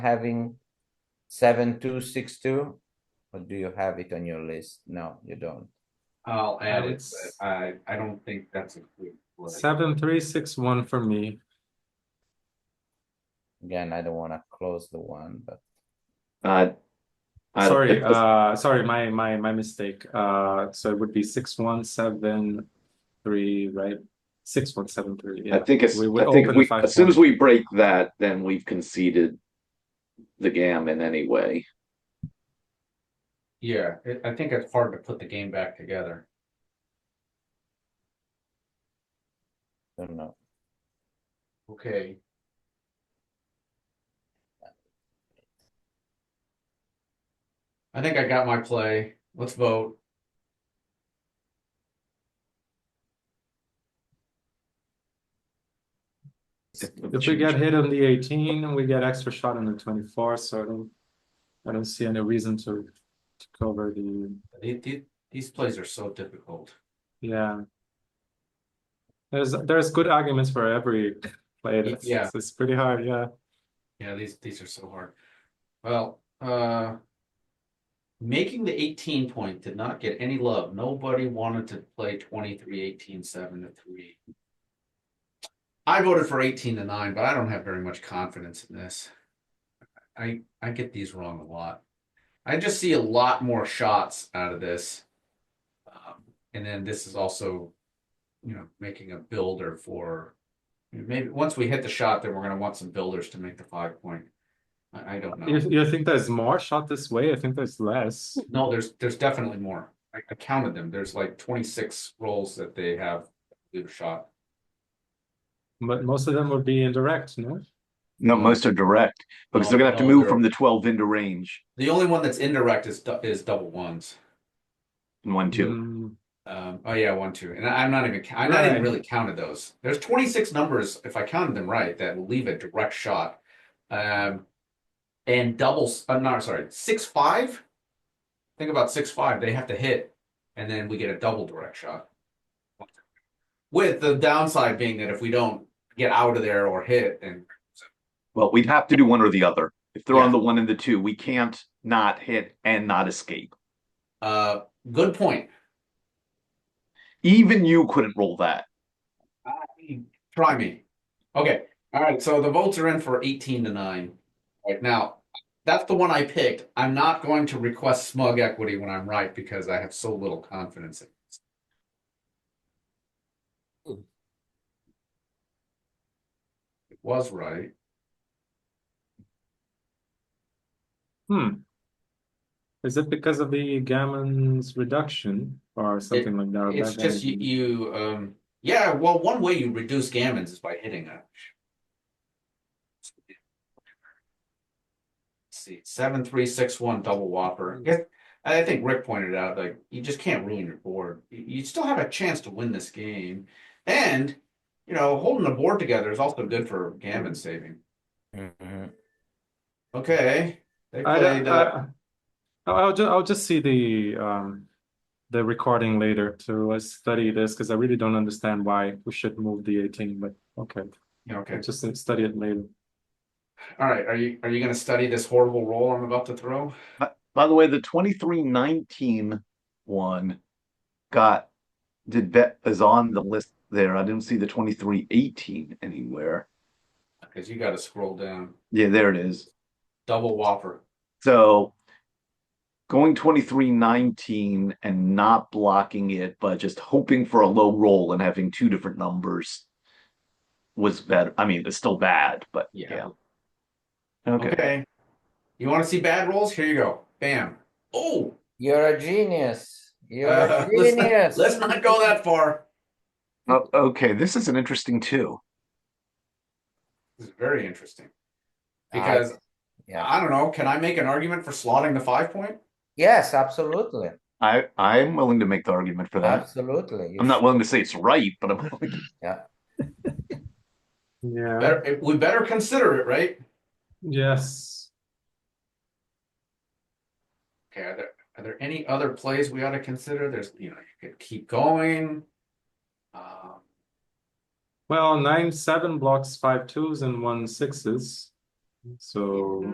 having seven, two, six, two? Or do you have it on your list? No, you don't. I'll add would it, s- but I, I don't think that's included. Seven, three, six, one for me. Again, I don't wanna close the one, but Uh, I- Sorry, it was- uh, sorry, my, my, my mistake. Uh, so it would be six, one, seven, three, right? Six, one, seven, three, I yeah. think it's, we I would think open we, five as soon as point. we break that, then we've conceded the gammon anyway. Yeah, it, I think it's hard to put the game back together. I don't know. Okay, I think I got my play. Let's vote. If we get hit on the eighteen, we get extra shot on the twenty-four, so I don't, I don't see any reason to, to cover the, The- the- These plays are so difficult. yeah. There's, there's good arguments for every play. That's, Yeah. It's pretty hard, yeah. Yeah, these, these are so hard. Well, uh. Making the eighteen point did not get any love. Nobody wanted to play twenty-three, eighteen, seven to three. I voted for eighteen to nine, but I don't have very much confidence in this. I, I get these wrong a lot. I just see a lot more shots out of this. Um, and then this is also, you know, making a builder for Maybe once we hit the shot, then we're gonna want some builders to make the five point. I, I don't know. You, you think there's more shot this way? I think there's less. No, there's, there's definitely more. I, I counted them. There's like twenty-six rolls that they have, leave a shot. But most of them would be indirect, no? No, most are direct, because they're gonna have to move from the twelve into range, The only one that's indirect is, du- is double ones. one, Mm, Um, oh yeah, one, two, and I- I'm not even, ca- I'm not even Right. really counted those. There's twenty-six numbers, if I counted them right, that will leave a direct shot. Um, and doubles, I'm not sorry, six, five? Think about six, five, they have to hit, and then we get a double direct shot. With the downside being that if we don't get out of there or hit, and Well, we'd have to do one or the other. If they're on Yeah. the one and the two, we can't not hit and not escape. uh, good point. Even you couldn't roll that. I- Try me. Okay. All right. So the votes are in for 18 to 9. All right. Now, that's the one I picked. I'm not going to request smug equity when I'm right because I have so little confidence. in this. It was right. Hmm. Is it because of the gammon's reduction or something like that? It's That just you, energy? you um, yeah, well, one way you reduce gammons is by hitting a. See, seven, three, six, one, double whopper. Hmm. I guess- I think Rick pointed out, like, you just can't ruin your board. You, you still have a chance to win this game. And, you know, holding the board together is also good for gammon saving. Mm-hmm. Mhm. Okay. They I played, don't, uh, I, I'll just, I'll just see the, um, the recording later to uh, study this because I really don't understand why we should move the 18, but okay, yeah, okay. I'll just uh, study it later. All right. Are you, are you going to study this horrible roll I'm about to throw? By the way, the twenty-three nineteen one got, did bet, is on the list there. I didn't see the twenty-three eighteen anywhere. Because you got to scroll down. Yeah, there it is. Double whopper. So going 23 19 and not blocking it, but just hoping for a low roll and having two different numbers was better. I mean, it's still bad, but Yeah. yeah. Okay. Okay. You want to see bad rolls? Here you go. Bam. Oh, You're a genius. You're Uh, a let's not- genius. let's not go that far. Oh, okay. This is an interesting two. This is very interesting. I- Because Yeah, I don't know, can I make an argument for slotting the five point? yes, absolutely, I, I'm willing to make the argument for that. absolutely. You I'm not should- willing to say it's right, but I'm willing Yeah, Better, we better consider it, right? yes. Okay, are there, are there any other plays we ought to consider? There's, you know, you could keep going. Um, Well, nine, seven blocks, five twos and one sixes. So.